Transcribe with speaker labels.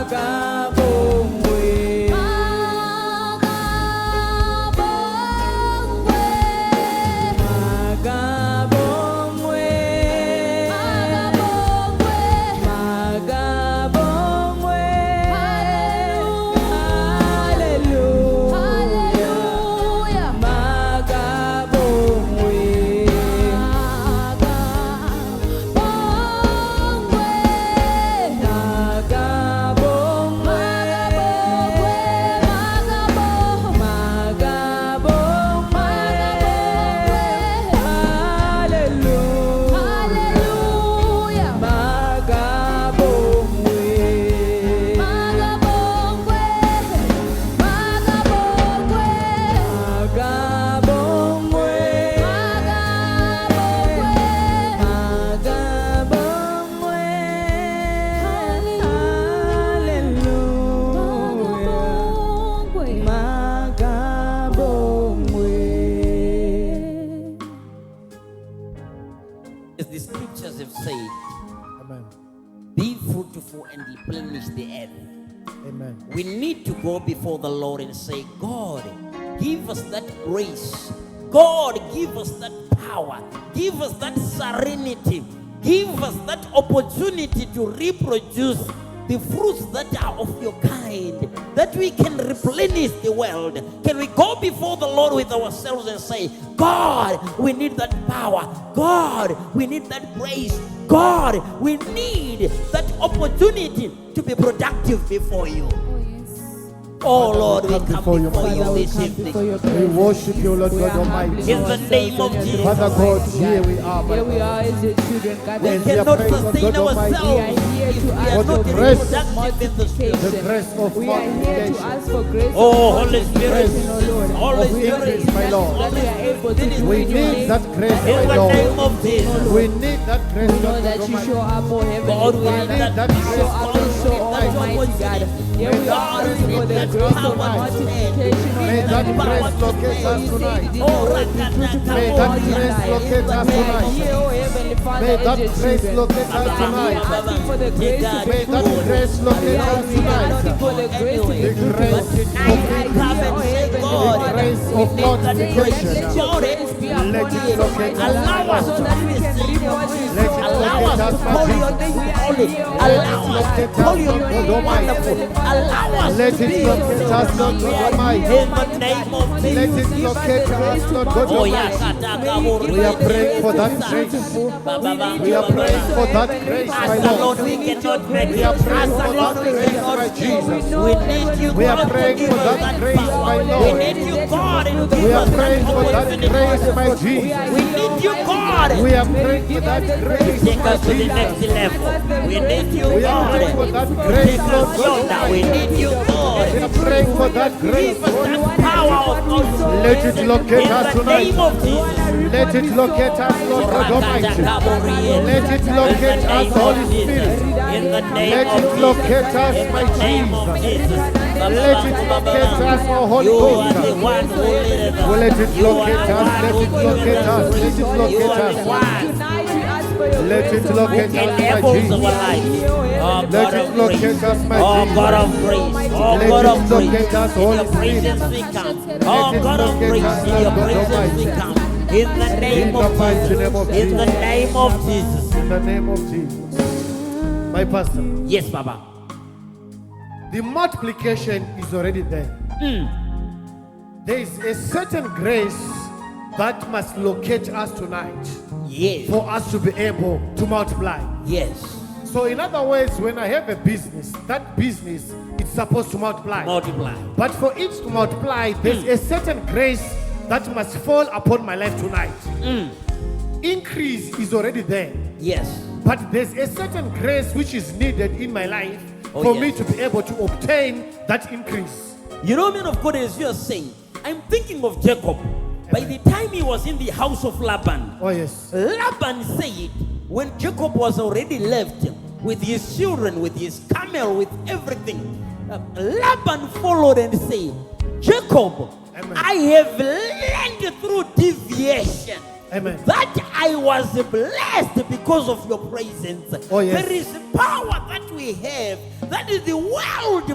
Speaker 1: time is the end.
Speaker 2: Amen.
Speaker 1: We need to go before the Lord and say, God, give us that grace. God, give us that power. Give us that serenity. Give us that opportunity to reproduce the fruits that are of your kind, that we can replenish the world. Can we go before the Lord with ourselves and say, God, we need that power. God, we need that grace. God, we need that opportunity to be productive before you.
Speaker 3: Oh, yes.
Speaker 1: Oh Lord, we
Speaker 2: come
Speaker 1: come before
Speaker 2: before you,
Speaker 1: you
Speaker 2: Father.
Speaker 3: Father, we
Speaker 1: this
Speaker 3: come before
Speaker 1: evening.
Speaker 3: your
Speaker 2: We
Speaker 3: presence.
Speaker 2: worship you, Lord
Speaker 3: We
Speaker 2: God
Speaker 3: are humbling
Speaker 2: Almighty.
Speaker 1: In the
Speaker 3: ourselves
Speaker 1: name of
Speaker 3: on your
Speaker 1: Jesus.
Speaker 3: throne,
Speaker 2: Father God,
Speaker 3: mighty
Speaker 2: here
Speaker 3: God.
Speaker 2: we are, my
Speaker 3: Here we
Speaker 2: God.
Speaker 3: are as your children, God.
Speaker 1: We
Speaker 3: Almighty.
Speaker 2: And we are
Speaker 1: cannot
Speaker 2: praying, Lord
Speaker 1: sustain
Speaker 2: God Almighty,
Speaker 3: We are
Speaker 1: ourselves
Speaker 3: here
Speaker 1: if
Speaker 3: to
Speaker 1: we
Speaker 3: ask
Speaker 1: are
Speaker 3: for
Speaker 1: not
Speaker 2: the grace.
Speaker 1: productive in the spirit.
Speaker 2: The grace of
Speaker 3: We are here to
Speaker 2: multiplication.
Speaker 3: ask for grace.
Speaker 1: Oh,
Speaker 3: and
Speaker 1: Holy Spirit,
Speaker 3: multiplication, oh Lord.
Speaker 1: Holy
Speaker 2: Of
Speaker 1: Spirit,
Speaker 2: increase, my Lord.
Speaker 3: That we are able to do in your
Speaker 2: We need
Speaker 3: name.
Speaker 2: that grace,
Speaker 1: In
Speaker 2: my
Speaker 1: the
Speaker 2: Lord.
Speaker 1: name of Jesus.
Speaker 2: We need that grace,
Speaker 3: We know
Speaker 2: Lord God
Speaker 3: that you
Speaker 2: Almighty.
Speaker 3: show up, oh Heavenly
Speaker 1: God, we need
Speaker 3: Father.
Speaker 2: that
Speaker 3: You
Speaker 2: grace,
Speaker 3: show up and show
Speaker 1: God,
Speaker 3: up,
Speaker 1: we need
Speaker 3: Almighty
Speaker 1: that
Speaker 3: God.
Speaker 1: opportunity.
Speaker 3: Here we are
Speaker 1: God, we
Speaker 3: asking for
Speaker 1: need
Speaker 3: the
Speaker 1: that
Speaker 3: grace
Speaker 1: power
Speaker 3: of multiplication, oh Heavenly Father.
Speaker 1: today.
Speaker 2: May that grace locate
Speaker 3: For
Speaker 2: us
Speaker 3: you say you
Speaker 2: tonight.
Speaker 3: did
Speaker 1: Oh,
Speaker 3: not always be fruitful
Speaker 2: May
Speaker 3: in
Speaker 2: that
Speaker 3: all your
Speaker 2: grace
Speaker 3: life.
Speaker 2: locate us
Speaker 3: We are
Speaker 2: tonight.
Speaker 3: here, oh Heavenly Father,
Speaker 2: May
Speaker 3: as
Speaker 2: that
Speaker 3: your
Speaker 2: grace
Speaker 3: children.
Speaker 2: locate us
Speaker 3: We are here
Speaker 2: tonight.
Speaker 3: asking for the grace to be
Speaker 2: May that
Speaker 3: fruitful.
Speaker 2: grace locate
Speaker 3: We are
Speaker 2: us
Speaker 3: here asking
Speaker 2: tonight.
Speaker 3: for the grace to be
Speaker 2: The grace
Speaker 3: fruitful.
Speaker 2: of
Speaker 3: We are here,
Speaker 1: Come
Speaker 3: oh Heavenly
Speaker 1: and say, God,
Speaker 2: multiplication. The
Speaker 3: Father.
Speaker 2: grace
Speaker 1: we
Speaker 2: of
Speaker 1: need that grace.
Speaker 3: Let
Speaker 2: multiplication.
Speaker 3: your
Speaker 1: God,
Speaker 3: grace be upon
Speaker 2: Let it
Speaker 3: us,
Speaker 2: locate
Speaker 3: Almighty God,
Speaker 1: allow us
Speaker 2: us, my
Speaker 3: so
Speaker 1: to
Speaker 2: Lord.
Speaker 3: that we can
Speaker 1: receive
Speaker 3: reap
Speaker 1: your
Speaker 3: what we
Speaker 1: grace.
Speaker 2: Let
Speaker 3: sow,
Speaker 2: it
Speaker 1: Allow
Speaker 2: locate
Speaker 1: us
Speaker 2: us,
Speaker 1: to
Speaker 3: Almighty
Speaker 2: my
Speaker 1: call
Speaker 3: God. We
Speaker 1: your name
Speaker 2: Jesus.
Speaker 3: are
Speaker 1: holy.
Speaker 3: here, Almighty
Speaker 1: Allow us to
Speaker 3: God.
Speaker 2: locate
Speaker 1: call
Speaker 2: us,
Speaker 3: Your
Speaker 1: your
Speaker 2: Lord God
Speaker 3: name,
Speaker 1: name
Speaker 2: Almighty.
Speaker 1: wonderful.
Speaker 3: Heavenly Father,
Speaker 1: Allow
Speaker 3: Father,
Speaker 1: us
Speaker 3: we
Speaker 2: Let
Speaker 1: to
Speaker 2: it
Speaker 1: be
Speaker 3: praise
Speaker 1: your
Speaker 3: your name.
Speaker 2: locate us,
Speaker 3: We are
Speaker 1: children. We are
Speaker 2: Lord God
Speaker 3: here,
Speaker 2: Almighty.
Speaker 1: in the
Speaker 3: Almighty God.
Speaker 1: name of
Speaker 3: May
Speaker 2: Let
Speaker 3: you
Speaker 1: Jesus.
Speaker 3: give
Speaker 2: it
Speaker 3: us
Speaker 2: locate
Speaker 3: the grace
Speaker 2: us,
Speaker 3: to
Speaker 2: Lord God
Speaker 1: Oh,
Speaker 3: multiply. May you
Speaker 1: yeah,
Speaker 2: Almighty.
Speaker 1: Kataka,
Speaker 3: give
Speaker 2: We
Speaker 3: us
Speaker 2: are
Speaker 3: the
Speaker 2: praying
Speaker 3: grace
Speaker 2: for
Speaker 3: to
Speaker 2: that
Speaker 3: be
Speaker 2: grace.
Speaker 3: fruitful. We need
Speaker 2: We
Speaker 3: your
Speaker 2: are
Speaker 3: grace,
Speaker 2: praying
Speaker 3: oh
Speaker 2: for that
Speaker 3: Heavenly
Speaker 2: grace,
Speaker 1: As
Speaker 2: my
Speaker 3: Father.
Speaker 1: the Lord,
Speaker 2: Lord.
Speaker 3: We
Speaker 1: we
Speaker 3: need your
Speaker 1: cannot make
Speaker 3: grace,
Speaker 2: We
Speaker 1: it.
Speaker 2: are
Speaker 3: oh sweet
Speaker 1: As
Speaker 2: praying
Speaker 1: the
Speaker 2: for
Speaker 3: Holy
Speaker 1: Lord,
Speaker 2: that
Speaker 1: we
Speaker 3: Spirit.
Speaker 2: grace,
Speaker 1: cannot
Speaker 2: my
Speaker 3: For
Speaker 1: do.
Speaker 3: we
Speaker 2: Jesus.
Speaker 3: know,
Speaker 1: We need
Speaker 3: Heavenly
Speaker 1: you,
Speaker 2: We are
Speaker 1: God,
Speaker 3: Father, that
Speaker 1: to
Speaker 2: praying
Speaker 3: you
Speaker 1: give
Speaker 2: for
Speaker 1: us
Speaker 2: that
Speaker 3: reign
Speaker 1: that
Speaker 3: and you are
Speaker 1: power.
Speaker 2: grace, my
Speaker 1: We
Speaker 2: Lord.
Speaker 3: already that
Speaker 1: need you,
Speaker 3: you
Speaker 1: God,
Speaker 3: fulfill
Speaker 1: and
Speaker 3: the
Speaker 1: give
Speaker 2: We are
Speaker 1: us that
Speaker 2: praying
Speaker 3: promises,
Speaker 2: for that
Speaker 3: Almighty
Speaker 1: opportunity.
Speaker 2: grace,
Speaker 3: God.
Speaker 2: my
Speaker 3: We are
Speaker 2: Jesus.
Speaker 1: We
Speaker 3: here, Almighty
Speaker 1: need you, God.
Speaker 3: God.
Speaker 2: We are
Speaker 3: May you
Speaker 2: praying for
Speaker 3: give us
Speaker 2: that
Speaker 3: the grace
Speaker 2: grace,
Speaker 3: to
Speaker 1: Take us
Speaker 2: Lord
Speaker 1: to the
Speaker 3: multiply.
Speaker 1: next
Speaker 3: Give
Speaker 2: Jesus.
Speaker 1: level.
Speaker 3: us the
Speaker 1: We
Speaker 3: grace
Speaker 1: need
Speaker 3: to
Speaker 1: you,
Speaker 3: be
Speaker 2: We are
Speaker 3: able
Speaker 2: praying
Speaker 3: to
Speaker 2: for
Speaker 1: God.
Speaker 2: that
Speaker 3: influence
Speaker 2: grace,
Speaker 1: Take us,
Speaker 2: Lord
Speaker 3: someone
Speaker 2: God
Speaker 3: else
Speaker 1: Jonah. We
Speaker 3: in your
Speaker 2: Almighty.
Speaker 1: need you,
Speaker 3: kingdom and be
Speaker 1: God.
Speaker 2: We are praying
Speaker 3: fruitful
Speaker 2: for
Speaker 3: in your
Speaker 2: that grace,
Speaker 1: Give
Speaker 3: kingdom. We want
Speaker 1: us that
Speaker 2: Lord.
Speaker 3: to reap
Speaker 1: power of
Speaker 3: what we
Speaker 1: God.
Speaker 3: sow,
Speaker 2: Let it
Speaker 3: Heavenly
Speaker 2: locate
Speaker 1: In
Speaker 3: Father.
Speaker 2: us
Speaker 1: the
Speaker 2: tonight.
Speaker 1: name of
Speaker 3: We want to
Speaker 1: Jesus.
Speaker 3: reap what
Speaker 2: Let it
Speaker 3: we sow,
Speaker 2: locate us,
Speaker 3: Almighty
Speaker 2: Lord God
Speaker 3: God.
Speaker 2: Almighty. Let
Speaker 1: Korakatakaborien.
Speaker 2: it
Speaker 1: In the
Speaker 2: locate us,
Speaker 1: name of
Speaker 2: Holy
Speaker 1: Jesus.
Speaker 2: Spirit.
Speaker 1: In the name
Speaker 2: Let
Speaker 1: of
Speaker 2: it
Speaker 1: Jesus.
Speaker 2: locate us,
Speaker 1: In
Speaker 2: my
Speaker 1: the name of
Speaker 2: Jesus.
Speaker 1: Jesus.
Speaker 2: Let it locate us,
Speaker 1: Babababababam.
Speaker 2: oh
Speaker 1: You
Speaker 2: Holy
Speaker 1: are the
Speaker 2: Ghost.
Speaker 1: one who leadeth
Speaker 2: Well,
Speaker 1: us.
Speaker 2: let it
Speaker 1: You are
Speaker 2: locate
Speaker 1: the one
Speaker 2: us, let
Speaker 1: who
Speaker 2: it
Speaker 1: giveth
Speaker 2: locate
Speaker 1: us
Speaker 2: us, let
Speaker 1: grace.
Speaker 2: it
Speaker 1: You
Speaker 2: locate
Speaker 1: are the
Speaker 2: us.
Speaker 1: one
Speaker 3: Tonight we ask for your
Speaker 2: Let
Speaker 3: grace,
Speaker 2: it
Speaker 1: who
Speaker 2: locate
Speaker 3: Almighty God.
Speaker 2: us, my
Speaker 1: enables
Speaker 3: We
Speaker 1: our
Speaker 2: Jesus.
Speaker 3: are
Speaker 1: lives.
Speaker 3: here, oh Heavenly Father,
Speaker 1: Oh God of
Speaker 2: Let it
Speaker 3: we need
Speaker 2: locate
Speaker 1: grace.
Speaker 3: your
Speaker 2: us, my
Speaker 3: grace.
Speaker 1: Oh
Speaker 3: We
Speaker 1: God
Speaker 2: Jesus.
Speaker 1: of
Speaker 3: need you,
Speaker 1: grace.
Speaker 3: Almighty
Speaker 1: Oh
Speaker 3: God.
Speaker 1: God
Speaker 2: Let it
Speaker 1: of grace.
Speaker 2: locate us,
Speaker 1: In your
Speaker 2: Holy Spirit.
Speaker 1: presence we come.
Speaker 2: Let
Speaker 1: Oh
Speaker 2: it
Speaker 1: God of
Speaker 2: locate
Speaker 1: grace.
Speaker 2: us,
Speaker 1: In your
Speaker 2: Lord God
Speaker 1: presence we
Speaker 2: Almighty.
Speaker 1: come. In the name
Speaker 2: In
Speaker 1: of
Speaker 2: the mighty
Speaker 1: Jesus.
Speaker 2: name of
Speaker 1: In the
Speaker 2: Jesus.
Speaker 1: name of Jesus.
Speaker 2: In the name of Jesus. My pastor,
Speaker 1: Yes, Baba.
Speaker 2: the multiplication is already there.
Speaker 1: Hmm.
Speaker 2: There is a certain grace that must locate us tonight
Speaker 1: Yes.
Speaker 2: for us to be able to multiply.
Speaker 1: Yes.
Speaker 2: So, in other words, when I have a business, that business it's supposed to multiply.
Speaker 1: Multiply.
Speaker 2: But for it to multiply,
Speaker 1: Hmm.
Speaker 2: there's a certain grace that must fall upon my life tonight.
Speaker 1: Hmm.
Speaker 2: Increase is already there,
Speaker 1: Yes.
Speaker 2: but there's a certain grace which is needed in my life
Speaker 1: Oh,
Speaker 2: for
Speaker 1: yes.
Speaker 2: me to be able to obtain that increase.
Speaker 1: You know, man of God, as you are saying, I'm thinking of Jacob. By the time he was in the house of Laban,
Speaker 2: Oh, yes.
Speaker 1: Laban said, when Jacob was already left with his children, with his camel, with everything, uh, Laban followed and said, Jacob,
Speaker 2: Amen.
Speaker 1: I have learned through deviation
Speaker 2: Amen.
Speaker 1: that I was blessed because of your presence.
Speaker 2: Oh, yes.
Speaker 1: There is power that we have, that is the world